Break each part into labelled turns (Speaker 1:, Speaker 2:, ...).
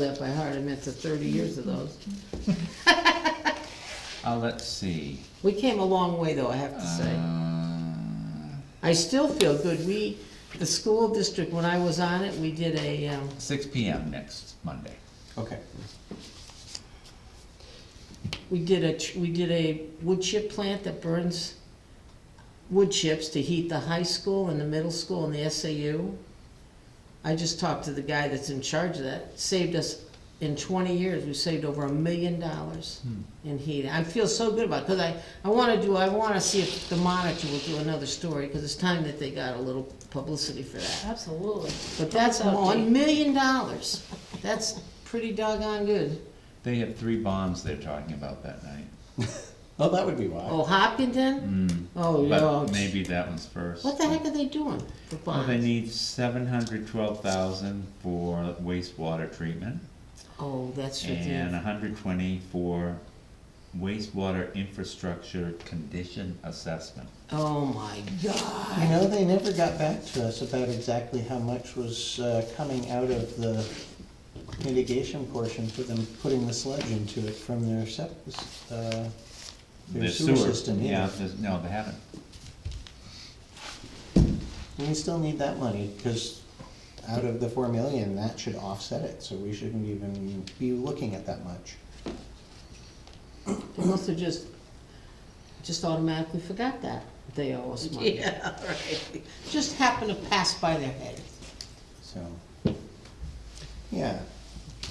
Speaker 1: that by heart, I meant to thirty years of those.
Speaker 2: Uh, let's see.
Speaker 1: We came a long way though, I have to
Speaker 2: Uh-huh.
Speaker 1: say.
Speaker 2: Uh,
Speaker 1: I still feel good, we, the school district, when I was on it, we did a, um,
Speaker 2: Six P M next Monday.
Speaker 3: Okay.
Speaker 1: we did a, tr- we did a wood chip plant that burns wood chips to heat the high school and the middle school and the SAU. I just talked to the guy that's in charge of that, saved us, in twenty years, we saved over a million dollars
Speaker 2: Hmm.
Speaker 1: in heat. I feel so good about it, cause I, I wanna do, I wanna see if the monitor will do another story, cause it's time that they got a little publicity for that.
Speaker 4: Absolutely.
Speaker 1: But that's
Speaker 4: Helps out,
Speaker 1: one
Speaker 4: Dee.
Speaker 1: million dollars, that's pretty doggone good.
Speaker 2: They have three bombs they're talking about that night.
Speaker 3: Oh, that would be why.
Speaker 1: Oh, Hopkinton?
Speaker 2: Mm,
Speaker 1: Oh, no.
Speaker 2: But maybe that one's first.
Speaker 1: What the heck are they doing for
Speaker 2: Well, they
Speaker 1: bonds?
Speaker 2: need seven hundred twelve thousand for wastewater treatment
Speaker 1: Oh, that's
Speaker 2: and uh,
Speaker 1: ridiculous.
Speaker 2: hundred twenty for wastewater infrastructure condition assessment.
Speaker 1: Oh, my God.
Speaker 3: You know, they never got back to us about exactly how much was uh, coming out of the mitigation portion for them putting the sludge into it from their sep, uh, their
Speaker 2: The
Speaker 3: sewer system,
Speaker 2: Yeah,
Speaker 3: yeah.
Speaker 2: there's- no, they haven't.
Speaker 3: And we still need that money, because out of the four million, that should offset it, so we shouldn't even be looking at that much.
Speaker 1: They must have just, just automatically forgot that they owe us money. Yeah, right. Just happened to pass by their head.
Speaker 3: So, yeah,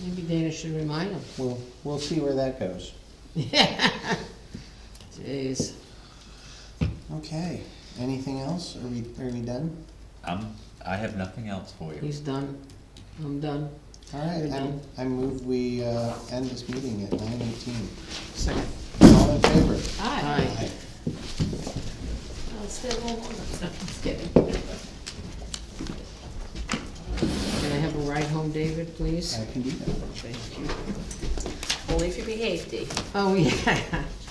Speaker 1: Maybe Dana should remind them.
Speaker 3: we'll, we'll see where that goes.
Speaker 1: Jeez.
Speaker 3: Okay, anything else? Are we, are we done?
Speaker 2: Um, I have nothing else for you.
Speaker 1: He's done. I'm done.
Speaker 3: All right,
Speaker 1: We're
Speaker 3: I'm-
Speaker 1: done.
Speaker 3: I move we uh, end this meeting at nine eighteen.
Speaker 1: Second.
Speaker 3: All in favor?
Speaker 4: Hi.
Speaker 1: Aye.
Speaker 4: I'll stay a little longer.
Speaker 1: Just kidding. Can I have a ride home, David, please?
Speaker 3: I can do that.
Speaker 1: Thank you.
Speaker 4: Only if you behave, Dee.
Speaker 1: Oh, yeah.